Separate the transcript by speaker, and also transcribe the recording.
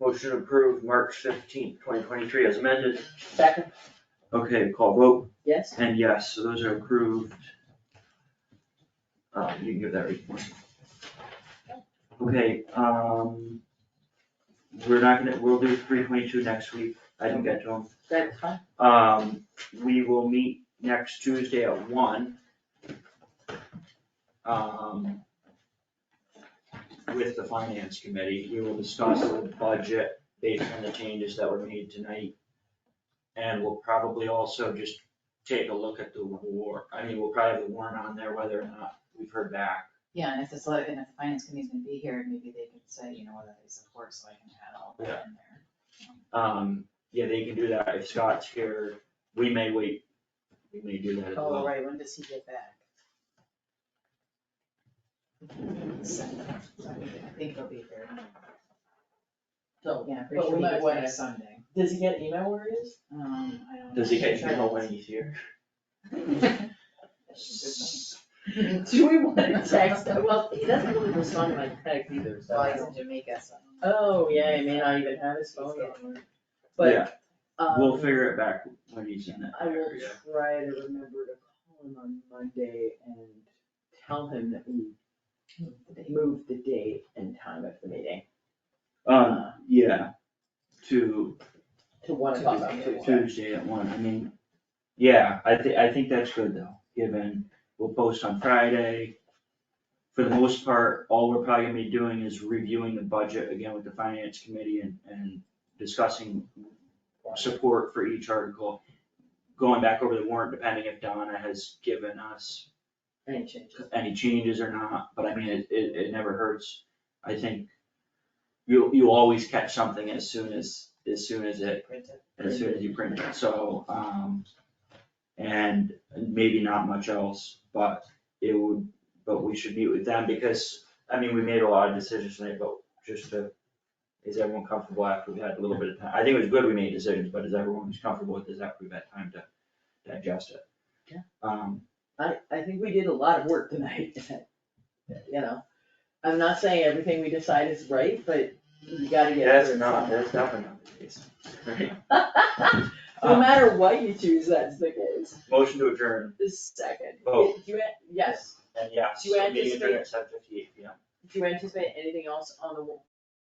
Speaker 1: Motion approved March fifteenth, twenty twenty-three as amended.
Speaker 2: Second,
Speaker 1: Okay, call vote,
Speaker 2: yes,
Speaker 1: and yes, so those are approved. Um, you can give that report. Okay, um, we're not gonna, we'll do three twenty-two next week, I didn't get to them.
Speaker 2: that's fine.
Speaker 1: Um, we will meet next Tuesday at one. Um. With the finance committee, we will discuss the budget based on the changes that were made tonight. And we'll probably also just take a look at the war, I mean, we'll probably have the warrant on there whether or not we've heard back.
Speaker 3: Yeah, and if this, and if the finance committee's gonna be here, maybe they could say, you know, whether they support, so I can add all that in there.
Speaker 1: Um, yeah, they can do that, if Scott's here, we may wait, we may do that as
Speaker 2: Oh,
Speaker 1: well.
Speaker 2: right, when does he get back?
Speaker 3: So, so I think- I think they'll be here,
Speaker 2: So,
Speaker 3: yeah, I'm
Speaker 2: But
Speaker 3: pretty sure
Speaker 2: we
Speaker 3: he
Speaker 2: might
Speaker 3: gets
Speaker 2: wanna-
Speaker 3: back Sunday.
Speaker 2: does he get email where he is?
Speaker 3: Um, I don't.
Speaker 1: Does he get
Speaker 3: know.
Speaker 1: to know when he's here?
Speaker 2: Do we wanna text him? Well, he doesn't really respond to my text either, so.
Speaker 3: Well, he's in Jamaica, so.
Speaker 2: Oh, yeah, he may not even have his phone yet,
Speaker 1: Yeah.
Speaker 2: but,
Speaker 1: We'll
Speaker 2: um,
Speaker 1: figure it back when he's in that
Speaker 2: I will
Speaker 1: area.
Speaker 2: try to remember to call him on Monday and tell him that we moved the date and time of the meeting
Speaker 1: Um, yeah, to
Speaker 2: to one o'clock on
Speaker 3: Tuesday.
Speaker 2: Tuesday.
Speaker 1: Tuesday at one, I mean, yeah, I thi- I think that's good though, given we'll post on Friday. For the most part, all we're probably gonna be doing is reviewing the budget again with the finance committee and, and discussing support for each article. Going back over the warrant, depending if Donna has given us
Speaker 2: Any changes?
Speaker 1: any changes or not, but I mean, it, it, it never hurts. I think you, you always catch something as soon as, as soon as it, as soon as you print it, so, um, and maybe not much else, but it would, but we should meet with them because, I mean, we made a lot of decisions tonight, but just to, is everyone comfortable after we've had a little bit of time? I think it was good we made decisions, but is everyone who's comfortable with this after we've had time to digest it?
Speaker 2: Yeah.
Speaker 1: Um,
Speaker 2: I, I think we did a lot of work tonight, you know, I'm not saying everything we decide is right, but you gotta get.
Speaker 1: That's
Speaker 2: through
Speaker 1: not,
Speaker 2: some.
Speaker 1: that's definitely not the case. Right.
Speaker 2: No matter what you choose, that's the case,
Speaker 1: Motion to adjourn,
Speaker 2: this second.
Speaker 1: Vote.
Speaker 2: Do you, an- yes,
Speaker 1: and yes,
Speaker 2: Do you
Speaker 1: meeting adjourned
Speaker 2: anticipate-
Speaker 1: at seven fifty-eight P M.
Speaker 2: do you anticipate anything else on the,